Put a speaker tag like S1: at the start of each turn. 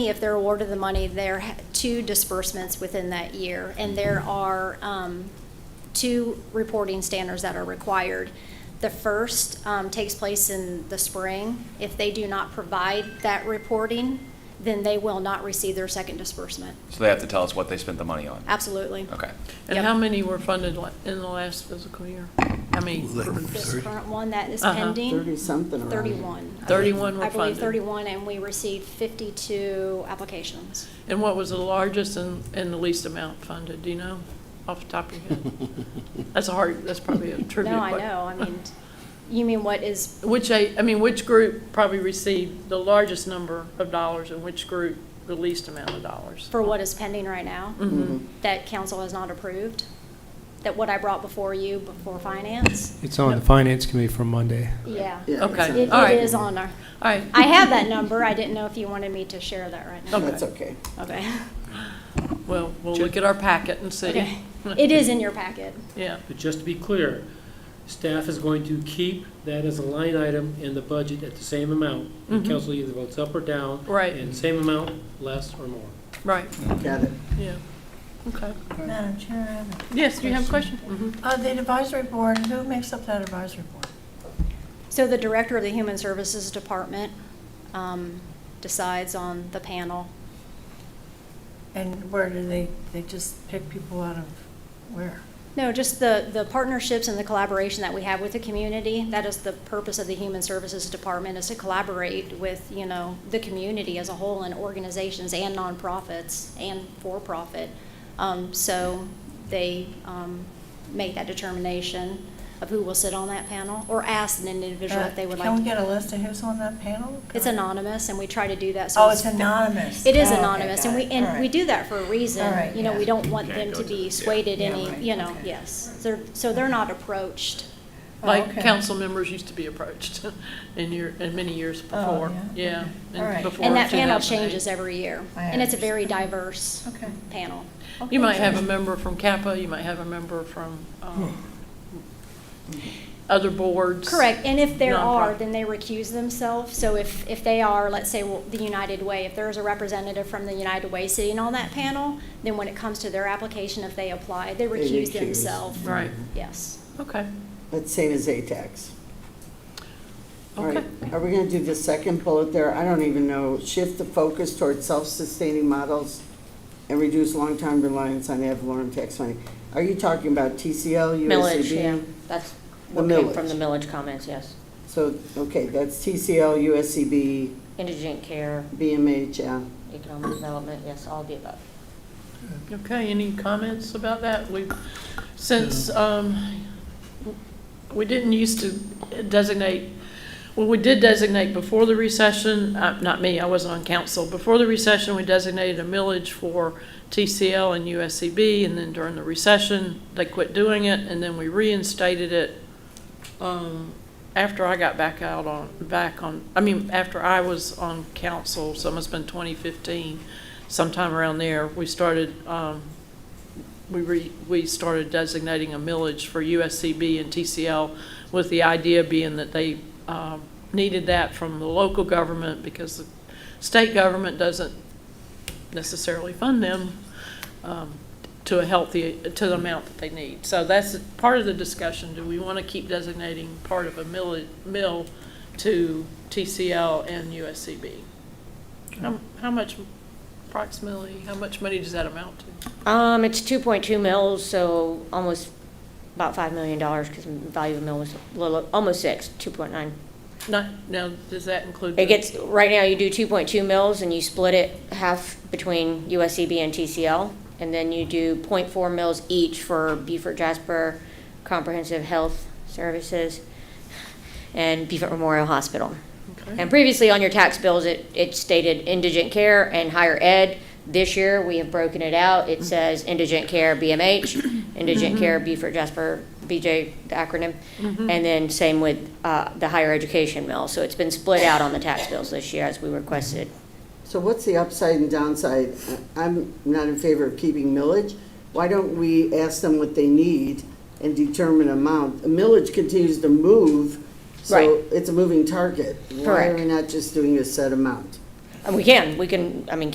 S1: If they're awarded the money, there are two disbursements within that year, and there are um, two reporting standards that are required. The first um, takes place in the spring. If they do not provide that reporting, then they will not receive their second disbursement.
S2: So they have to tell us what they spent the money on.
S1: Absolutely.
S2: Okay.
S3: And
S1: Yep.
S3: how many were funded la- in the last fiscal year? How many?
S1: This current one that is
S3: Uh-huh.
S1: pending,
S4: Thirty-something around.
S1: 31. I
S3: 31 were
S1: I believe
S3: funded.
S1: 31, and we received 52 applications.
S3: And what was the largest and, and the least amount funded, do you know, off the top of your head? That's a hard, that's probably a trivia
S1: No, I
S3: question.
S1: know, I mean, you mean what is
S3: Which, I, I mean, which group probably received the largest number of dollars and which group the least amount of dollars?
S1: For what is pending right now?
S4: Mm-hmm.
S1: That council has not approved? That what I brought before you, before finance?
S5: It's on the finance committee for Monday.
S1: Yeah.
S4: Yeah,
S3: Okay.
S4: it's
S1: It
S4: on-
S3: All right.
S1: it is on our,
S3: All right,
S1: I have that number, I didn't know if you wanted me to share that right now.
S4: That's okay.
S1: Okay.
S3: well, we'll look at our packet and see.
S1: Okay. It is in your packet.
S3: Yeah,
S6: But just to be clear, staff is going to keep that as a line item in the budget at the same amount. The
S3: Mhm.
S6: council either votes up or down.
S3: Right.
S6: And same amount, less or more.
S3: right,
S4: Got it.
S3: yeah, okay.
S7: Madam Chair, I have
S3: Yes, do you have a question? Mhm.
S7: a- uh, the advisory board, who makes up that advisory board?
S1: So the director of the Human Services Department um, decides on the panel.
S7: And where do they, they just pick people out of where?
S1: No, just the, the partnerships and the collaboration that we have with the community. That is the purpose of the Human Services Department, is to collaborate with, you know, the community as a whole and organizations and nonprofits and for-profit. Um, So they um, make that determination of who will sit on that panel or ask an individual if they would
S7: Uh, Can
S1: like.
S7: we
S1: to
S7: get a list of who's on that panel?
S1: It's anonymous and we try to do that. so
S7: Oh, it's anonymous.
S1: It is
S7: Oh, okay,
S1: anonymous and
S7: got
S1: we,
S7: it. All
S1: and we
S7: right.
S1: do that for a
S7: All
S1: reason.
S7: right,
S1: You know, we
S7: yeah.
S1: don't want
S2: Can't
S1: them
S2: go
S1: to
S2: to
S1: be
S2: the-
S1: swayed at
S7: Yeah,
S1: any,
S7: right,
S1: you know,
S7: okay.
S1: yes. They're, so they're not approached.
S7: Oh,
S3: Like
S7: okay.
S3: council members used to be approached in year, in many years before, yeah.
S7: Oh, yeah? All right.
S3: before
S1: And that panel
S3: 2008.
S1: changes every year.
S7: I
S1: And it's a
S7: understand.
S1: very diverse
S7: Okay.
S1: panel.
S3: You might have a member from Kappa, you might have a member from um, other boards.
S1: Correct, and if there are,
S3: Nonprofit.
S1: then they recuse themselves. So if, if they are, let's say, well, the United Way, if there's a representative from the United Way sitting on that panel, then when it comes to their application, if they apply, they recuse
S4: recuse.
S1: themselves.
S3: Right,
S1: Yes.
S3: okay,
S4: That's same as ATAX. All right,
S3: okay.
S4: are we gonna do the second bullet there? I don't even know. Shift the focus towards self-sustaining models and reduce long-term reliance on ad valorem tax money. Are you talking about TCL,
S8: Millage, yeah,
S4: USCB?
S8: that's
S4: The
S8: what came from
S4: millage.
S8: the millage comments, yes.
S4: So, okay, that's TCL, USCB,
S8: Indigent care,
S4: BMH, yeah.
S8: economic development, yes, all of the above.
S3: Okay, any comments about that? We, since, um, we didn't used to designate, well, we did designate before the recession, uh, not me, I wasn't on council. Before the recession, we designated a millage for TCL and USCB, and then during the recession, they quit doing it, and then we reinstated it, um, after I got back out on, back on, I mean, after I was on council, so it must have been twenty fifteen, sometime around there, we started, um, we re, we started designating a millage for USCB and TCL with the idea being that they, um, needed that from the local government because the state government doesn't necessarily fund them, um, to a healthy, to the amount that they need. So that's part of the discussion. Do we want to keep designating part of a mill, mill to TCL and USCB? How, how much approximately, how much money does that amount to?
S8: Um, it's two point two mills, so almost about five million dollars, because the value of a mill was a little, almost six, two point nine.
S3: Not, now, does that include?
S8: It gets, right now, you do two point two mills, and you split it half between USCB and TCL, and then you do 0.4 mills each for Beaufort Jasper Comprehensive Health Services and Beaufort Memorial Hospital.
S3: Okay.
S8: And previously on your tax bills, it, it stated indigent care and higher ed. This year, we have broken it out. It says indigent care BMH, indigent care B for Jasper, BJ, the acronym. And then same with, uh, the higher education mill. So it's been split out on the tax bills this year as we requested.
S4: So what's the upside and downside? I'm not in favor of keeping millage. Why don't we ask them what they need and determine amount? Millage continues to move, so
S8: Right.
S4: it's a moving target. Why are
S8: Correct.
S4: we not just doing a set amount?
S8: And we can, we can, I mean,